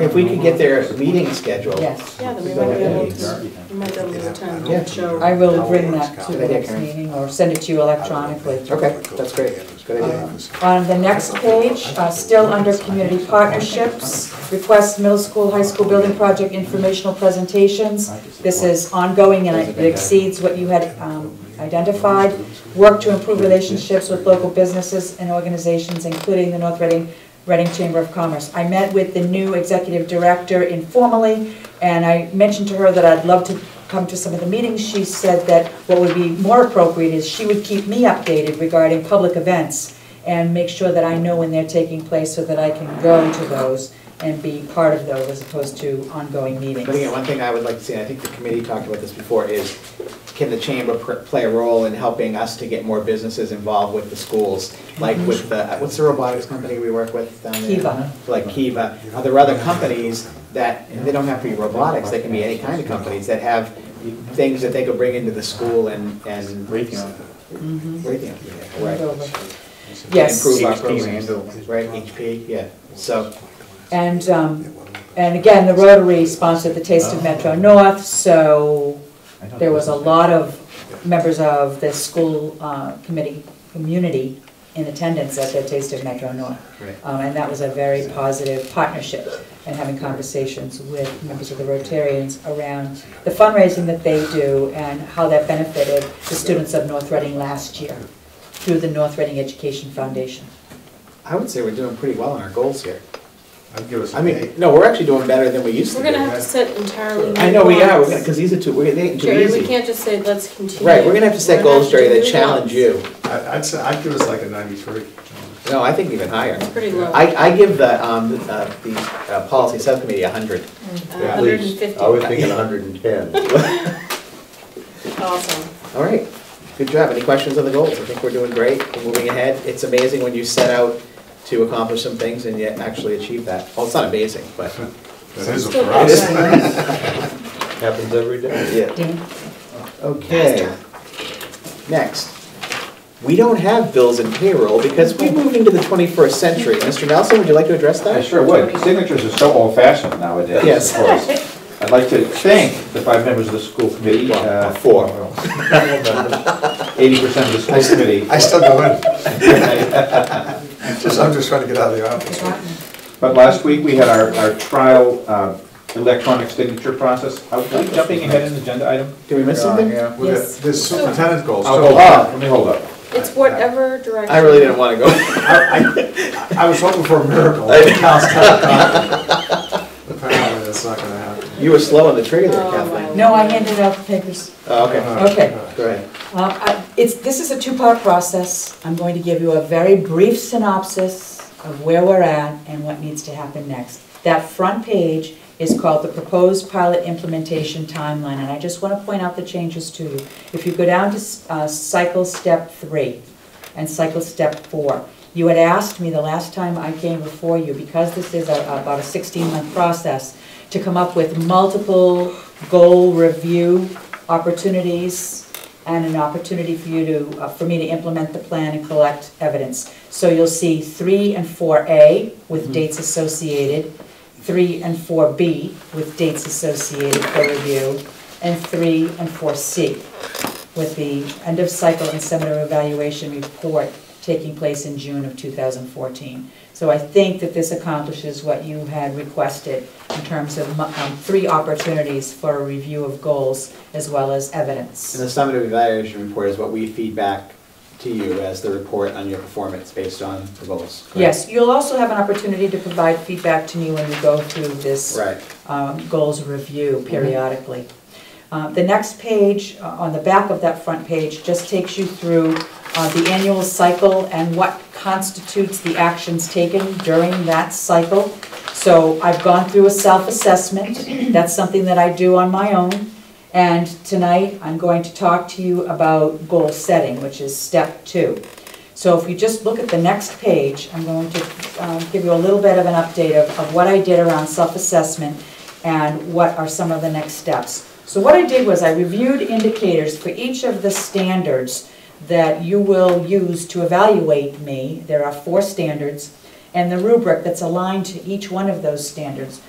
If we could get their meeting scheduled. Yes, Yeah, then we Is might that be able okay? to, we might be able to attend Yeah. the show. I will bring that to the next Okay. meeting or send it to you electronically. Okay, that's great, good idea. On the next page, uh, still under community partnerships, request middle school, high school building project informational presentations. This is ongoing and it exceeds what you had um, identified. Work to improve relationships with local businesses and organizations, including the North Reading, Reading Chamber of Commerce. I met with the new executive director informally, and I mentioned to her that I'd love to come to some of the meetings. She said that what would be more appropriate is she would keep me updated regarding public events and make sure that I know when they're taking place so that I can go to those and be part of those as opposed to ongoing meetings. But again, one thing I would like to see, and I think the committee talked about this before, is can the chamber pr- play a role in helping us to get more businesses involved with the schools? Like with the, what's the robotics company we work with down there? Kiva. Like Kiva. Are there other companies that, and they don't have to be robotics, they can be any kind of companies that have things that they could bring into the school and, and. Raytheon. Raytheon, yeah, right. Over. Yes. Improve our HP. programs, right, HP, yeah, so. And, um, and again, the Rotary sponsored the Taste of Metro North, so Oh, there was a lot of members of the school uh, committee, community in attendance at the Taste of Metro North. Right. Um, And that was a very positive partnership and having conversations with members of the Rotarians around the fundraising that they do and how that benefited the students of North Reading last year through the North Reading Education Foundation. I would say we're doing pretty well on our goals here. I'd give us I mean, no, we're actually doing better than we used to do. We're gonna have to set entirely new I know we are, we're gonna, ones. because these are two, we're, they ain't too Jerry, we easy. can't just say, let's continue. Right, we're gonna have to set We're gonna goals, Jerry, have to that do challenge ones. you. I- I'd say, I'd give us like a ninety-three. No, I think even higher. It's pretty low. I, I give the, um, the, uh, the uh, policy subcommittee a hundred. At hundred and least, fifty. I was thinking hundred and ten. Awesome. All right, good job. Any questions on the goals? I think we're doing great, we're moving ahead. It's amazing when you set out to accomplish some things and yet actually achieve that. Well, it's not amazing, but. That is a Still for us. outside. Happens every day. Yeah. Dean? Okay. Next. We don't have bills and payroll because we moved into the twenty-first century. Mr. Nelson, would you like to address that? I sure would. Signatures are so old-fashioned nowadays, Yes. of course. I'd like to thank the five members of the school committee. Well, uh, four. Eighty percent of the school committee. I still go in, just, I'm just trying to get out of the office. But last week, we had our, our trial um, electronic signature process. Are we jumping ahead in the agenda item? Did we miss something? Yeah. With Yes. the- There's superintendent goals. I'll so- hold up, let me hold up. It's whatever direction. I really didn't want to go. I, I- I was hoping for a miracle. Apparently, that's not gonna happen. You were slow on the trigger there, Oh, Kathleen. wow. No, I handed out the papers. Oh, okay, Okay. go ahead. Uh, I- It's, this is a two-part process. I'm going to give you a very brief synopsis of where we're at and what needs to happen next. That front page is called the Proposed Pilot Implementation Timeline, and I just want to point out the changes to you. If you go down to uh, cycle step three and cycle step four, you had asked me the last time I came before you, because this is a- about a 16-month process, to come up with multiple goal review opportunities and an opportunity for you to, uh, for me to implement the plan and collect evidence. So you'll see three and four A with dates associated, three and four B with dates associated for review, and three and four C with the end of cycle and seminar evaluation report taking place in June of 2014. So I think that this accomplishes what you had requested in terms of mu- um, three opportunities for a review of goals as well as evidence. And the summative evaluation report is what we feed back to you as the report on your performance based on the goals. correct? Yes, you'll also have an opportunity to provide feedback to me when we go through this Right. um, goals review periodically. Uh, The next page, uh, on the back of that front page, just takes you through uh, the annual cycle and what constitutes the actions taken during that cycle. So I've gone through a self-assessment, that's something that I do on my own. And tonight, I'm going to talk to you about goal setting, which is step two. So if you just look at the next page, I'm going to um, give you a little bit of an update of, of what I did around self-assessment and what are some of the next steps. So what I did was I reviewed indicators for each of the standards that you will use to evaluate me. There are four standards, and the rubric that's aligned to each one of those standards.